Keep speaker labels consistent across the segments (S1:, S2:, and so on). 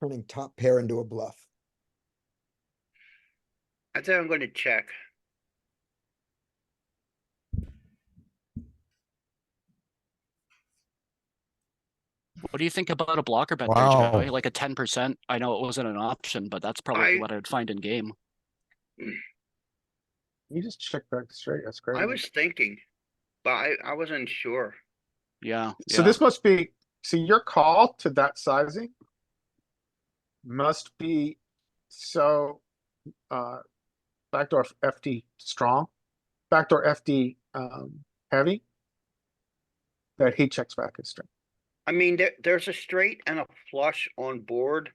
S1: turning top pair into a bluff.
S2: I'd say I'm gonna check.
S3: What do you think about a blocker bet
S4: Wow.
S3: there, Joey? Like a ten percent? I know it wasn't an option, but that's probably
S2: I-
S3: what I'd find in game.
S4: You just check back straight. That's great.
S2: I was thinking, but I, I wasn't sure.
S3: Yeah.
S4: So
S3: yeah.
S4: this must be, so your call to that sizing must be so, uh, backdoor FD strong, backdoor FD, um, heavy, that he checks back his straight.
S2: I mean, there, there's a straight and a flush on board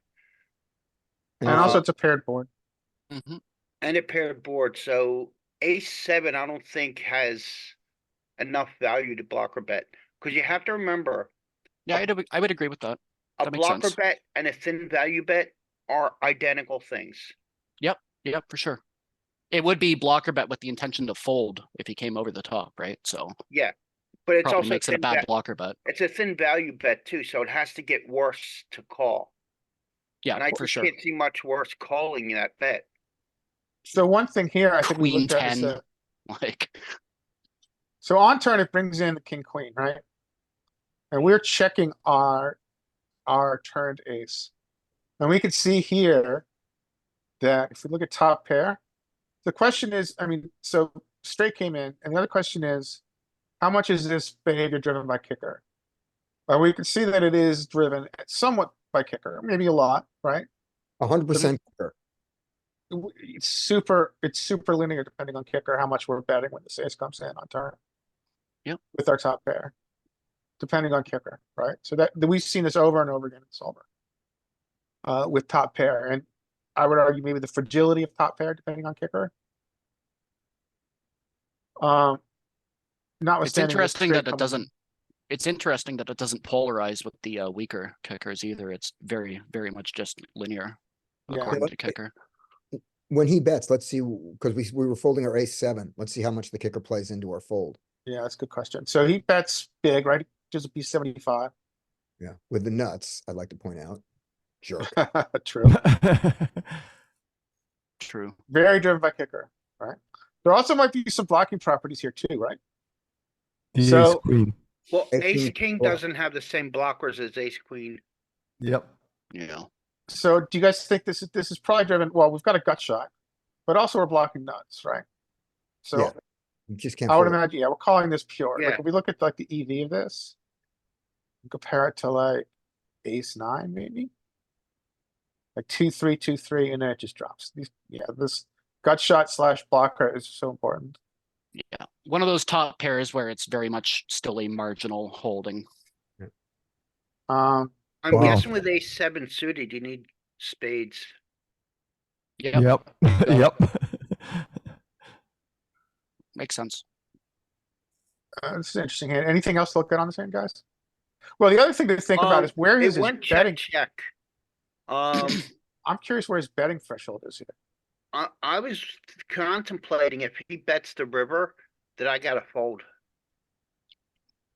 S4: And
S1: Uh,
S4: also it's a paired board.
S3: Mhm.
S2: and a paired board, so ace seven, I don't think has enough value to blocker bet, cause you have to remember,
S3: Yeah, I'd, ag- I would agree with that.
S2: a
S3: That makes
S2: blocker
S3: sense.
S2: bet and a thin value bet are identical things.
S3: Yeah, for sure. It would be blocker bet with the intention to fold if he came over the top, right? So
S2: Yeah, but it's
S3: probably
S2: also
S3: makes it a
S2: thin
S3: bad
S2: va-
S3: blocker bet.
S2: it's a thin value bet too, so it has to get worse to call. And
S3: Yeah,
S2: I
S3: for
S2: just
S3: sure.
S2: can't see much worse calling that bet.
S4: So one thing here, I think we
S3: Queen
S4: looked at is
S3: 10.
S4: that-
S3: Like,
S4: so on turn, it brings in the king, queen, right? And we're checking our, our turned ace. And we can see here that if we look at top pair, the question is, I mean, so straight came in, and the other question is, how much is this behavior driven by kicker? Well, we can see that it is driven somewhat by kicker, maybe a lot, right?
S1: A hundred percent kicker.
S4: w- it's super, it's super linear depending on kicker, how much we're betting when the ace comes in on turn.
S3: Yep.
S4: With our top pair. Depending on kicker, right? So that, that we've seen this over and over again in solver. Uh, with top pair, and I would argue maybe the fragility of top pair depending on kicker. Um.
S3: it's
S4: Notwithstanding. Oh, with
S3: interesting
S4: straight
S3: that it
S4: coming in.
S3: doesn't, it's interesting that it doesn't polarize with the uh, weaker kickers either. It's very, very much just linear
S4: Yeah. Yeah,
S3: according
S1: let-
S3: to kicker.
S1: When he bets, let's see, because we, we were folding our ace seven. Let's see how much the kicker plays into our fold.
S4: Yeah, that's a good question. So he bets big, right? Just a B seventy-five.
S1: Yeah, with the nuts, I'd like to point out. Jerk.
S4: True.
S3: True.
S4: Very driven by kicker, right? There also might be some blocking properties here too, right?
S5: The
S4: So-
S5: ace queen.
S2: Well,
S1: Ace
S2: ace
S1: king
S2: king
S1: four.
S2: doesn't have the same blockers as ace queen.
S5: Yep.
S3: Yeah.
S4: So do you guys think this is, this is probably driven, well, we've got a gut shot, but also we're blocking nuts, right?
S1: Yeah,
S4: So
S1: You just can't.
S4: I would
S1: fold.
S4: imagine, yeah, we're calling this pure.
S2: Yeah.
S4: Like if we look at like the EV of this, compare it to like ace nine maybe? Like two, three, two, three, and then it just drops. These, yeah, this gut shot slash blocker is so important.
S3: Yeah. One of those top pairs where it's very much still a marginal holding.
S4: Um,
S2: I'm
S1: Wow.
S2: guessing with ace seven suited, you need spades.
S3: Yeah.
S5: Yep. Yep.
S3: Makes sense.
S4: uh, this is an interesting hand. Anything else to look at on this hand, guys? Well, the other thing to think about
S2: Um,
S4: is where is
S2: It
S4: his
S2: went check,
S4: betting?
S2: check. Um,
S4: I'm curious where his betting threshold is here.
S2: I, I was contemplating if he bets the river, that I gotta fold.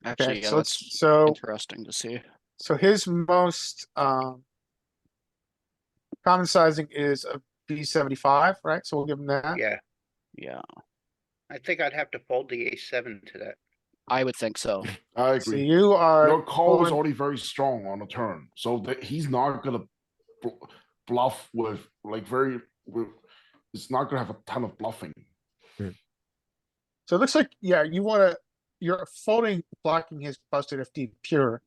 S3: Actually,
S4: Okay,
S3: yeah,
S4: so
S3: that's
S4: let's, so,
S3: interesting to see.
S4: so his most, um. Common sizing is a B seventy-five, right? So we'll give him that.
S2: Yeah,
S3: Yeah,
S2: I think I'd have to fold the ace seven to that.
S3: I would think so.
S6: I
S4: So
S6: agree.
S4: you
S6: Your
S4: are,
S6: call is
S4: calling-
S6: already very strong on the turn, so that he's not gonna bl- bluff with like very. With, it's not gonna have a ton of bluffing.
S4: so it looks like, yeah, you wanna, you're folding, blocking his busted FD pure.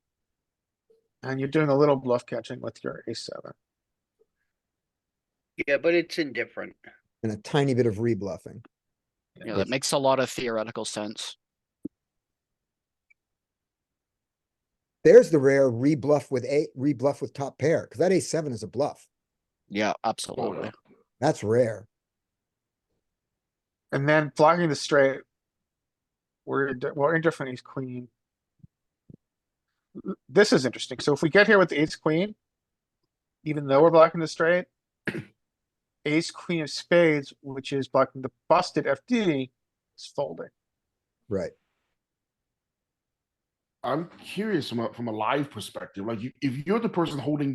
S4: And you're doing a little bluff catching with your ace seven.
S2: Yeah, but it's indifferent.
S1: And a tiny bit of rebluffing.
S3: Yeah, that makes a lot of theoretical sense.
S1: There's the rare rebluff with a, rebluff with top pair, because that ace seven is a bluff.
S3: Yeah,
S6: Oh,
S3: absolutely.
S6: yeah.
S1: That's rare.
S4: And then blocking the straight. We're, indi- we're indifferent ace queen. L- This is interesting. So if we get here with the ace queen. Even though we're blocking the straight. Ace queen of spades, which is blocking the busted FD, is folding.
S1: Right.
S6: I'm curious from a, from a live perspective. Like, you, if you're the person holding the